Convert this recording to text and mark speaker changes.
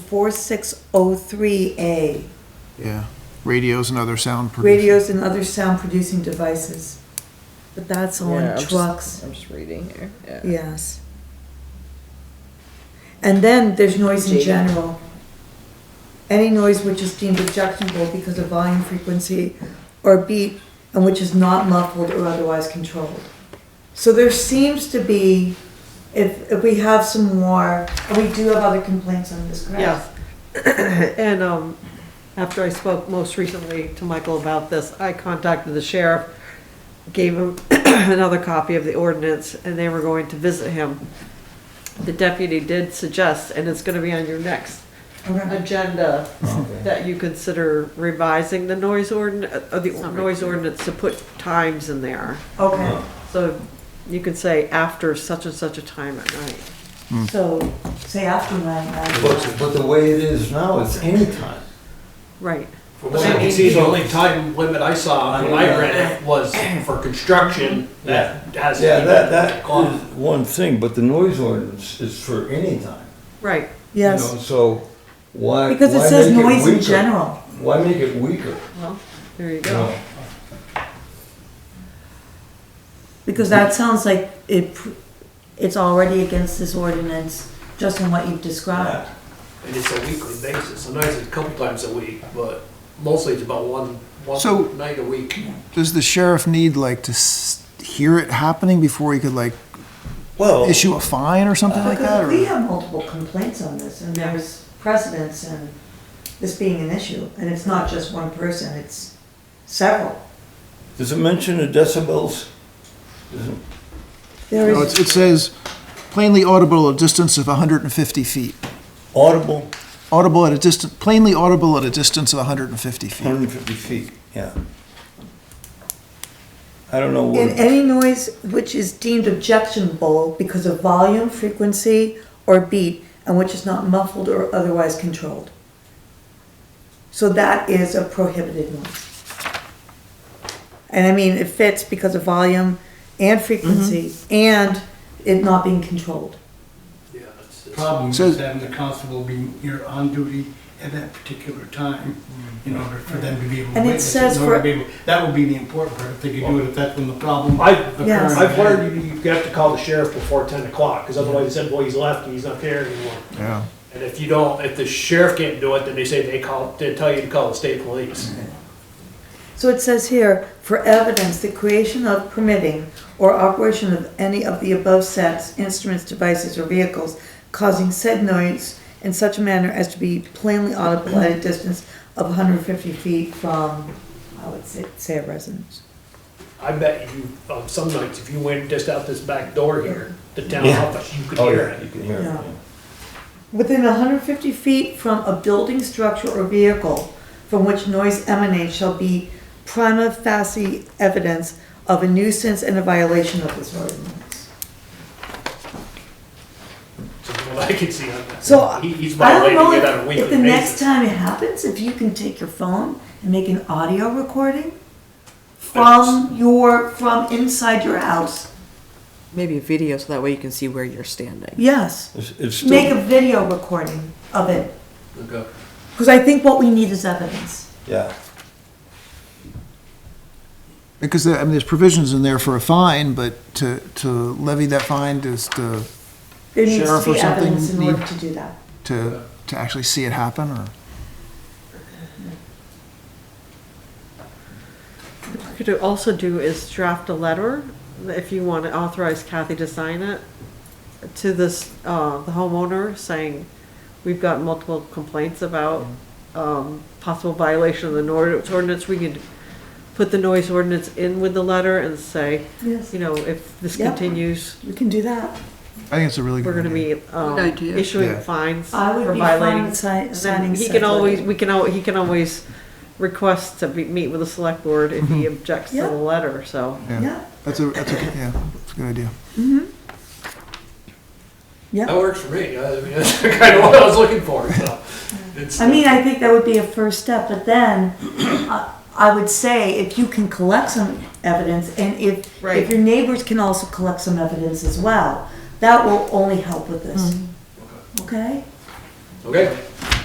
Speaker 1: 4603A,
Speaker 2: Yeah, radios and other sound. producers.
Speaker 1: radios and other sound producing devices. But that's
Speaker 3: Yeah,
Speaker 1: on
Speaker 3: I'm just-
Speaker 1: trucks,
Speaker 3: I'm just reading here, yeah.
Speaker 1: yes. And then there's noise in
Speaker 3: Jade.
Speaker 1: general. Any noise which is deemed objectionable because of volume, frequency, or beat, and which is not muffled or otherwise controlled. So there seems to be, if, if we have some more, and we do have other complaints on this, correct?
Speaker 4: Yes. And um, after I spoke most recently to Michael about this, I contacted the sheriff, gave him another copy of the ordinance, and they were going to visit him. The deputy did suggest, and it's gonna be on your next
Speaker 1: Okay.
Speaker 4: agenda, that you consider revising the noise ordin, uh, the noise ordinance to put times in there.
Speaker 3: Uh,
Speaker 1: Okay,
Speaker 4: So you could say after such and such a time at night.
Speaker 1: so say after nine,
Speaker 5: But,
Speaker 1: right?
Speaker 5: but the way it is now, it's anytime.
Speaker 4: Right.
Speaker 6: From what I can see, the only time limit I saw when I read it was for construction, that hasn't
Speaker 5: Yeah,
Speaker 6: even
Speaker 5: that, that
Speaker 6: gone.
Speaker 5: is one thing, but the noise ordinance is for any time.
Speaker 4: Right.
Speaker 5: you
Speaker 1: Yes,
Speaker 5: know, So why?
Speaker 1: because it
Speaker 5: why
Speaker 1: says
Speaker 5: make
Speaker 1: noise in
Speaker 5: weaker?
Speaker 1: general.
Speaker 5: Why make it weaker?
Speaker 4: Well, there you
Speaker 5: you
Speaker 4: go.
Speaker 5: know?
Speaker 1: Because that sounds like it, pr- it's already against this ordinance, just in what you've described.
Speaker 6: And it's a weekly basis, sometimes it's a couple times a week, but mostly it's about one,
Speaker 2: So-
Speaker 6: one night a week.
Speaker 2: Does the sheriff need like to s- hear it happening before he could like
Speaker 5: Well,
Speaker 2: issue a fine or something like that?
Speaker 1: Because we
Speaker 2: Or?
Speaker 1: have multiple complaints on this, and
Speaker 4: Yeah.
Speaker 1: there's precedence and this being an issue, and it's not just one person, it's several.
Speaker 5: does it mention the decibels?
Speaker 1: There
Speaker 2: No, it's,
Speaker 1: is,
Speaker 2: it says plainly audible at a distance of 150 feet.
Speaker 5: Audible,
Speaker 2: Audible at a distance, plainly audible at a distance of 150 feet.
Speaker 5: 150 feet, yeah. I don't know
Speaker 1: in
Speaker 5: what,
Speaker 1: any noise which is deemed objectionable because of volume, frequency, or beat, and which is not muffled or otherwise controlled. So that is a prohibited noise. And I mean, it fits because of volume and frequency, and it not being controlled.
Speaker 6: Yeah, it's- it's-
Speaker 7: problem
Speaker 2: So-
Speaker 7: is having the constable be, you're on duty at that particular time
Speaker 6: Mm-hmm.
Speaker 7: in order for them to be able to
Speaker 1: And it
Speaker 7: witness
Speaker 1: says
Speaker 7: it. in order
Speaker 1: for-
Speaker 7: to be able- That would be the important part, if they could do it, if that's when the problem
Speaker 6: I've,
Speaker 7: occurred.
Speaker 1: Yes.
Speaker 6: I've learned you, you have to call the sheriff before ten o'clock, because otherwise this employee's left and he's not there anymore.
Speaker 2: Yeah.
Speaker 6: And if you don't, if the sheriff can't do it, then they say they call, they tell you to call the state police.
Speaker 1: So it says here, for evidence, the creation of permitting or operation of any of the above sets, instruments, devices, or vehicles causing said noise in such a manner as to be plainly audible at a distance of hundred and fifty feet from, I would say, say a residence.
Speaker 6: I bet you, um, some nights, if you went just out this back door here, the town
Speaker 5: Yeah.
Speaker 6: office, you could
Speaker 5: oh
Speaker 6: hear
Speaker 5: yeah,
Speaker 6: it.
Speaker 5: you can hear it.
Speaker 1: Yeah.
Speaker 5: yeah.
Speaker 1: Within hundred and fifty feet from a building, structure, or vehicle from which noise emanates shall be prima facie evidence of a nuisance and a violation of this ordinance.
Speaker 6: So from what I can see on that.
Speaker 1: So,
Speaker 6: He- he's
Speaker 1: I don't
Speaker 6: violating
Speaker 1: know
Speaker 6: it on a
Speaker 1: if,
Speaker 6: weekly
Speaker 1: if the next
Speaker 6: basis.
Speaker 1: time it happens, if you can take your phone and make an audio recording from your, from inside your house,
Speaker 3: Maybe a video, so that way you can see where you're standing.
Speaker 1: yes.
Speaker 5: It's, it's
Speaker 1: Make
Speaker 5: still,
Speaker 1: a video recording of it,
Speaker 6: Okay.
Speaker 1: because I think what we need is evidence.
Speaker 5: yeah.
Speaker 2: Because there, I mean, there's provisions in there for a fine, but to, to levy that fine is to,
Speaker 1: There needs
Speaker 2: Sheriff
Speaker 1: to
Speaker 2: or
Speaker 1: be
Speaker 2: something
Speaker 1: evidence in
Speaker 2: need-
Speaker 1: order to do that.
Speaker 2: to, to actually see it happen or?
Speaker 4: What you could also do is draft a letter, if you want to authorize Kathy to sign it, to this, uh, the homeowner, saying, we've got multiple complaints about, um, possible violation of the noise ordinance, we could put the noise ordinance in with the letter and say,
Speaker 1: Yes,
Speaker 4: you know, if this
Speaker 1: Yeah.
Speaker 4: continues,
Speaker 1: we can do that.
Speaker 2: I think it's a really good
Speaker 4: we're gonna
Speaker 2: idea.
Speaker 4: be, um,
Speaker 3: Good idea.
Speaker 2: Yeah.
Speaker 4: issuing fines
Speaker 1: I
Speaker 4: for
Speaker 1: would be fine
Speaker 4: violating
Speaker 1: with si- signing.
Speaker 4: And He
Speaker 1: such
Speaker 4: can always,
Speaker 1: a-
Speaker 4: we can, al- he can always request to be- meet with the select board if he objects to
Speaker 1: Yeah.
Speaker 4: the letter, so.
Speaker 1: Yeah,
Speaker 2: That's a, that's a, yeah, that's a good idea.
Speaker 6: That works for me. I mean, that's kind of what I was looking for, so. It's-
Speaker 1: I mean, I think that would be a first step, but then I I would say if you can collect some evidence and if, if
Speaker 4: Right.
Speaker 1: your neighbors can also collect some evidence as well, that will only help with this. Okay?
Speaker 6: Okay.